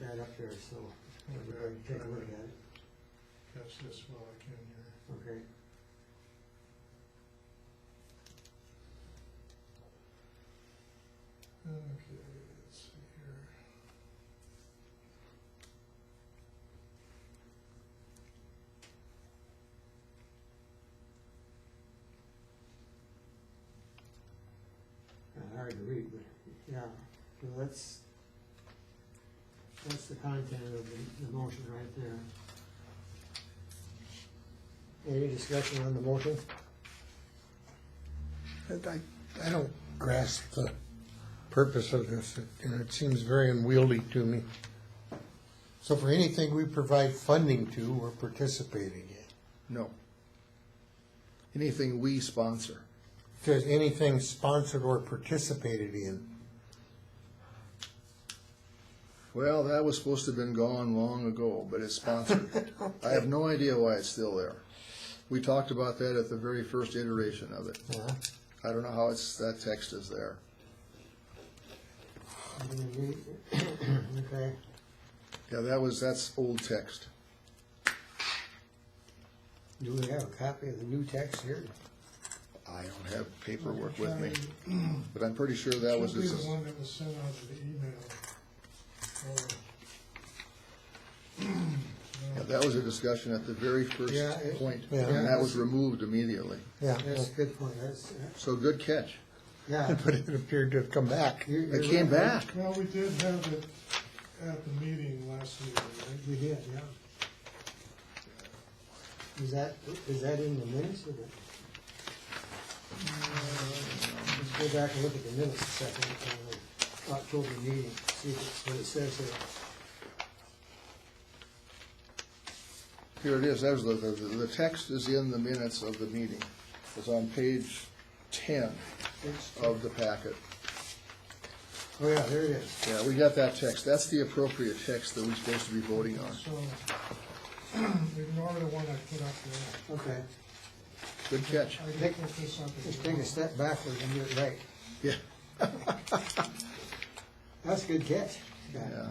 right up here, so everybody can take a look at it. Catch this while I can here. Okay. Okay, let's see here. Kinda Uh, hard to read, but, yeah, so that's, that's the content of the, the motion right there. Any discussion on the motion? I, I don't grasp the purpose of this, and it seems very unwieldy to me. So for anything we provide funding to, we're participating in. No. Anything we sponsor. If there's anything sponsored or participated in, Well, that was supposed to have been gone long ago, but it's sponsored. I have no idea why it's still there. We talked about that at the very first iteration of it. uh, I don't know how it's, that text is there. Okay, Yeah, that was, that's old text. do we have a copy of the new text here? I don't have paperwork with me, but I'm pretty sure that was, Should be it's the a- one that was sent out to the email. Oh, yeah, that was a discussion at the very first Yeah, it- point, yeah. and that was removed immediately. yeah, That's a good point, that's, So good catch. yeah. but it appeared to have come back. you- It you're came right. back. Well, we did have it at the meeting last week, right? We did, yeah. Is that, is that in the minutes or the? uh, Let's go back and look at the minutes a second, uh, October meeting, see if it's what it says there. Here it is, that was the, the, the text is in the minutes of the meeting. It's on page ten It's- of the packet. Oh, yeah, there it is. Yeah, we got that text, that's the appropriate text that we're supposed to be voting on. So ignore the one I put up there. Okay, Good catch. I did put this up. as just take a well. step backwards and do it right. Yeah. That's a good catch. Yeah.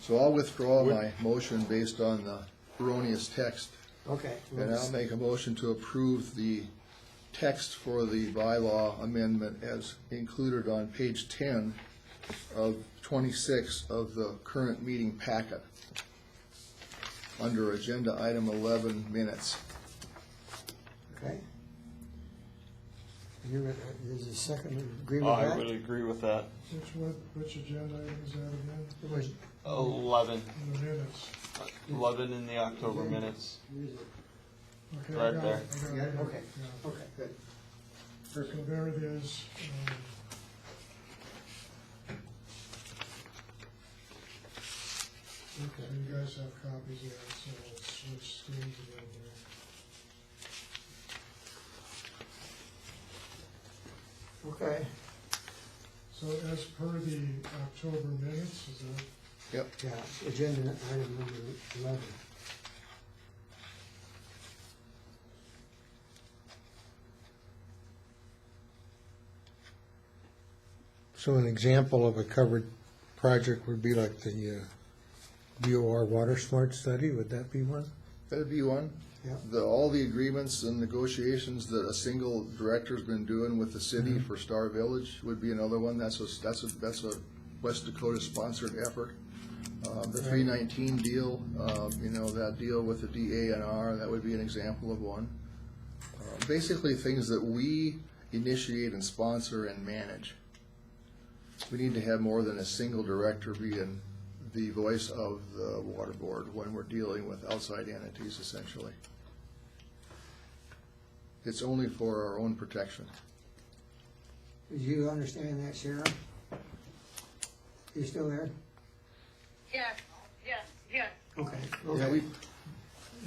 So I'll withdraw my motion based on the erroneous text, Okay. we'll and I'll just- make a motion to approve the text for the bylaw amendment as included on page ten of twenty-six of the current meeting packet, under agenda item eleven minutes. Okay. You, uh, there's a second, agree with I that? would agree with that. Which one, which agenda item is that again? It was- Eleven, In the minutes. eleven in the October minutes. here's it. Okay, I Right got there. it, I got it, Yeah, okay, yeah. okay, good. So there it is. um, Okay. So you guys have copies of it, so we'll switch screens again here. Okay. So as per the October minutes, is that, Yeah, agenda item number eleven. So an example of a covered project would be like the uh, DOR Water Smart Study, would that be one? That'd be one. Yeah. The, all the agreements and negotiations that a single director's been doing with the city for Star Village would be another one. That's a, that's a, that's a West Dakota sponsored effort. Uh, the three nineteen deal, uh, you know, that deal with the DA and R, that would be an example of one. Uh, Basically, things that we initiate and sponsor and manage. We need to have more than a single director being the voice of the water board when we're dealing with outside entities essentially. It's only for our own protection. Do you understand that, Sharon? You still there? Yes, yes, yes. Okay. Yeah, Okay. we,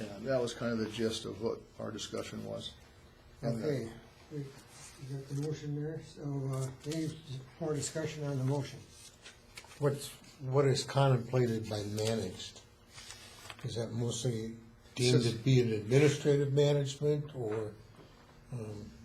yeah, that was kind of the gist of what our discussion was. And the- Okay, we you got the motion there, so, uh, any more discussion on the motion? What's, what is contemplated by managed? Is that mostly deemed to be an administrative management or um,